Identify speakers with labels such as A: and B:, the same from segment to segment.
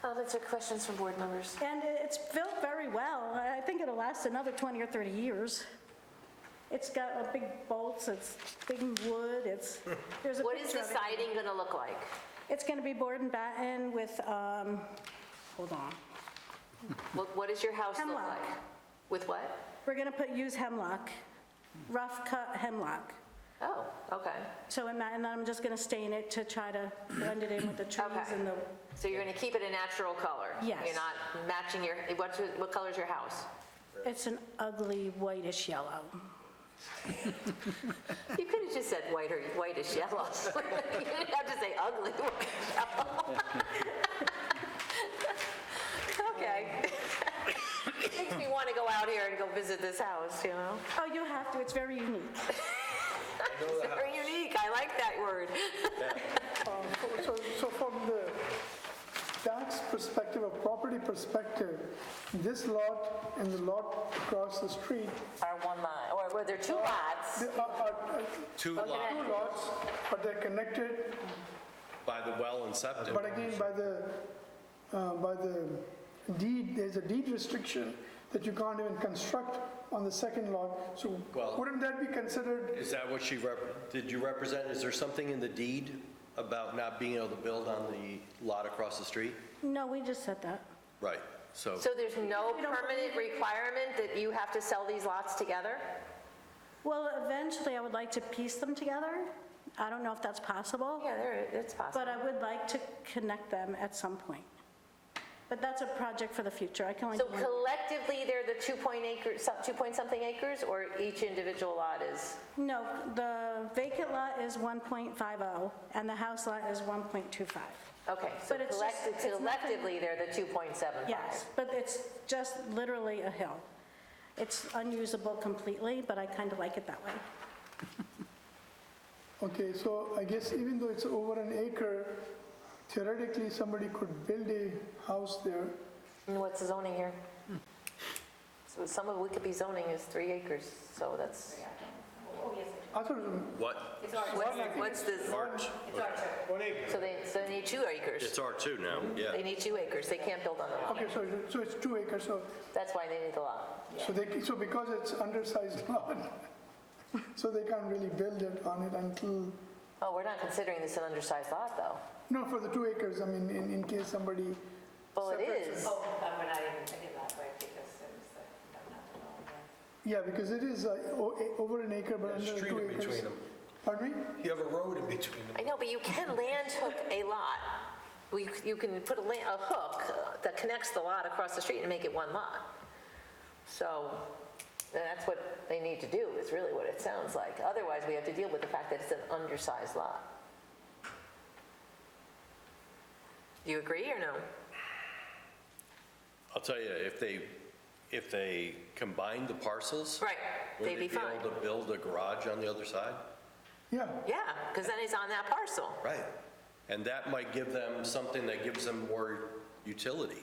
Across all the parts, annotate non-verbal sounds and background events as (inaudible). A: Comments or questions from board members?
B: And it's built very well. I I think it'll last another 20 or 30 years. It's got a big bolts, it's big wood, it's, there's a
A: What is
B: picture
A: the
B: of it.
A: siding going to look like?
B: It's going to be board and batten with, um, hold on.
A: What, what does your house look
B: Hemlock.
A: like? With what?
B: We're going to put, use hemlock, rough cut hemlock.
A: Oh, okay.
B: So, I'm not- and then I'm just going to stain it to try to blend it in with the trees
A: Okay.
B: and the,
A: So you're going to keep it a natural color?
B: Yes.
A: You're not matching your, what's, your- what color's your house?
B: it's an ugly whitish yellow.
A: You could have just said white or whitish yellow. (laughs) You didn't have to say ugly whitish yellow. (laughs) Okay. Makes me want to go out here and go visit this house, you know?
B: Oh, you have to, it's very unique.
A: It's very unique, I like that word.
C: So, so from the tax perspective or property perspective, this lot and the lot across the street
A: Or one lot, or were there two lots?
C: they are- are
D: Two
C: are
D: lot
C: two lots, but they're connected,
D: by the well and septic.
C: but again, by the, uh, by the deed, there's a deed restriction that you can't even construct on the second lot. So
D: Well-
C: wouldn't that be considered,
D: Is that what she, rep- did you represent, is there something in the deed about not being able to build on the lot across the street?
B: No, we just said that.
D: Right, so,
A: So there's no permanent requirement that you have to sell these lots together?
B: Well, eventually, I would like to piece them together. I don't know if that's possible,
A: Yeah, there, it's possible.
B: but I would like to connect them at some point. But that's a project for the future. I can only,
A: So collectively, they're the 2 point acre, some- 2 point something acres, or each individual lot is?
B: no, the vacant lot is 1.50, oh, and the house lot is 1.25.
A: Okay, so
B: But it's just-
A: collect-
B: it's nothing-
A: collectively, they're the 2.75?
B: Yes, but it's just literally a hill. It's unusable completely, but I kind of like it that way.
C: okay, so I guess even though it's over an acre, theoretically, somebody could build a house there.
A: And what's the zoning here? So some of Wikipedia zoning is three acres, so that's.
C: I thought it was
D: what?
A: What's- What's the,
D: Arch?
A: so they, so they need two acres.
D: It's R2 now,
A: They
D: yeah.
A: need two acres, they can't build on the lot.
C: Okay, so, so it's two acres, so,
A: That's why they need the lot.
C: so they, so because it's undersized (laughs) lot, so they can't really build it on it until,
A: Oh, we're not considering this an undersized lot, though.
C: no, for the two acres, I mean, in, in case somebody,
A: Well, it is.
E: Oh, um, we're not even thinking that way because it was like, I'm not the wrong one.
C: yeah, because it is uh, o- a- over an acre, but under
F: There's a
C: two
F: street in
C: acres.
F: between them.
C: Pardon me?
F: You have a road in between them.
A: I know, but you can land hook a lot. We- You can put a la- a hook uh, that connects the lot across the street and make it one lot. So that's what they need to do, is really what it sounds like. Otherwise, we have to deal with the fact that it's an undersized lot. Do you agree or no?
D: I'll tell you, if they, if they combined the parcels.
A: Right,
D: would
A: they'd be fine.
D: able to build a garage on the other side?
C: Yeah,
A: Yeah, because then it's on that parcel.
D: Right. And that might give them something that gives them more utility,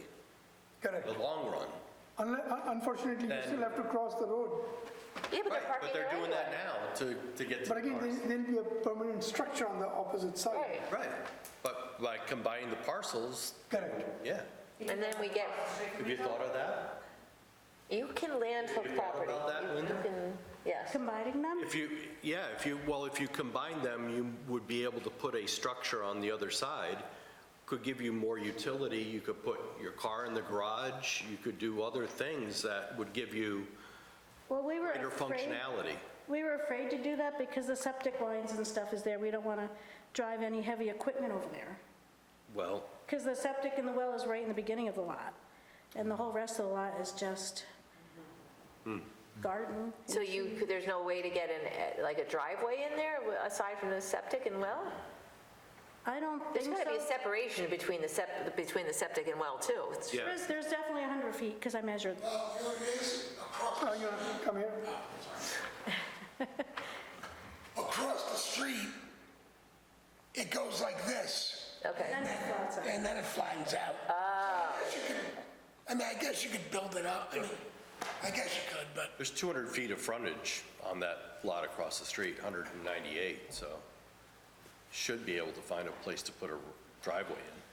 C: correct.
D: the long run.
C: Unle- un- Unfortunately, you
D: Then-
C: still have to cross the road,
A: Yeah, but they're
D: Right,
A: parking
D: but
A: their
D: they're doing that
A: anyway.
D: now to, to get to the
C: but again,
D: parcel.
C: there- there'll be a permanent structure on the opposite side.
A: Right,
D: Right, but by combining the parcels,
C: Correct.
D: yeah.
A: and then we get,
D: Have you thought of that?
A: you can land hook
D: Have you thought
A: property.
D: about that,
A: You-
D: Linda?
A: You can, yes.
B: Combining them?
D: If you, yeah, if you, well, if you combine them, you would be able to put a structure on the other side, could give you more utility, you could put your car in the garage, you could do other things that would give you
B: Well, we were
D: greater
B: afraid.
D: functionality.
B: We were afraid to do that because the septic lines and stuff is there. We don't want to drive any heavy equipment over there.
D: Well,
B: Because the septic and the well is right in the beginning of the lot. And the whole rest of the lot is just
D: Hmm.
B: garden.
A: So you, could- there's no way to get an, eh, like a driveway in there w- aside from the septic and well?
B: I don't
A: There's
B: think
A: gotta be a
B: so.
A: separation between the sep, between the septic and well too. It's-
D: yeah,
B: There's- There's definitely 100 feet because I measured.
C: Oh, you wanna come here?
G: across the street, it goes like this,
A: Okay,
B: Then it flattens out.
G: and then it flattens out. You could- I mean, I guess you could build it up, I mean, I guess you could, but
D: there's 200 feet of frontage on that lot across the street, 198, so should be able to find a place to put a driveway in.